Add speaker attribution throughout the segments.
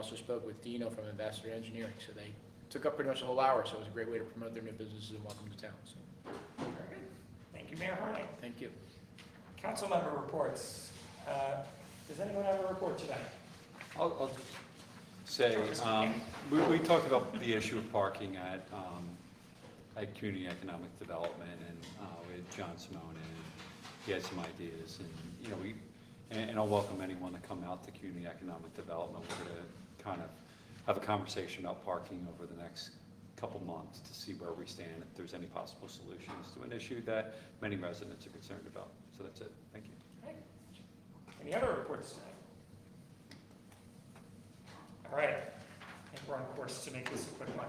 Speaker 1: Also spoke with Dino from Ambassador Engineering, so they took up pretty much the whole hour, so it was a great way to promote their new businesses and welcome to town, so,
Speaker 2: Very good. Thank you, Mayor Harding.
Speaker 1: thank you.
Speaker 2: Council member reports. Uh, Does anyone have a report today?
Speaker 3: I'll, I'll just say, um, we, we talked about the issue of parking at, um, at community economic development and, uh, with John Simone and he had some ideas and, you know, we, and, and I'll welcome anyone to come out to community economic development. We're gonna kind of have a conversation about parking over the next couple months to see where we stand, if there's any possible solutions to an issue that many residents are concerned about. So that's it. Thank you.
Speaker 2: Right. Any other reports tonight? All right, I think we're on course to make this a quick one.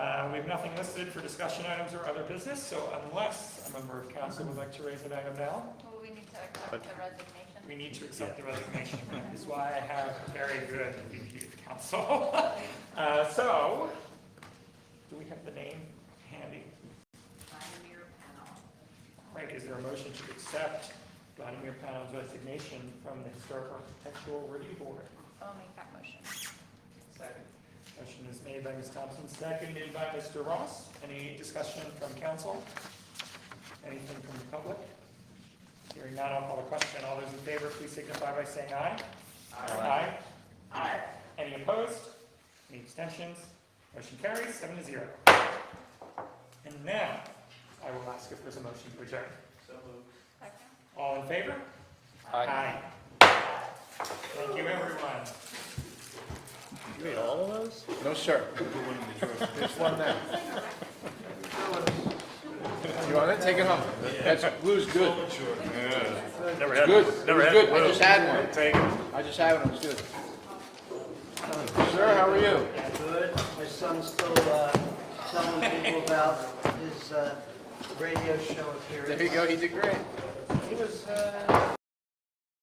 Speaker 2: Uh, We have nothing listed for discussion items or other business, so unless a member of council would like to raise an item now,
Speaker 4: Well, we need to accept the resignation.
Speaker 2: we need to accept the resignation. That is why I have a very good review of council. Uh, So, do we have the name handy?
Speaker 4: Pioneer panel.
Speaker 2: Right, is there a motion to accept Vladimir Panel's resignation from the Historical Architectural Review Board?
Speaker 4: I'll Oh, make that motion.
Speaker 2: Second. Motion is made by Ms. Thompson, seconded by Mr. Ross. Any discussion from council? Anything from the public? Hearing none, I'll call the question. All those in favor, please signify by saying aye. Aye. Aye. Any opposed? Any abstentions? Motion carries seven to zero. And now, I will ask if there's a motion to adjourn.
Speaker 4: Second?
Speaker 2: All in favor?
Speaker 3: Aye.
Speaker 2: Thank you, everyone.
Speaker 3: You ate all of those?
Speaker 1: No, sir. There's one there. You want it? Take it home. That's, glue's good.
Speaker 5: Never
Speaker 1: It's
Speaker 5: had,
Speaker 1: good. It
Speaker 5: never
Speaker 1: was
Speaker 5: had.
Speaker 1: good. I
Speaker 5: glue.
Speaker 1: just had one.
Speaker 5: Take it.
Speaker 1: I just had one, it was good. Sir, how are you?
Speaker 6: Good. My son's still uh, telling people about his uh, radio show
Speaker 1: There you
Speaker 6: appearance.
Speaker 1: go, he did great.
Speaker 6: He was uh,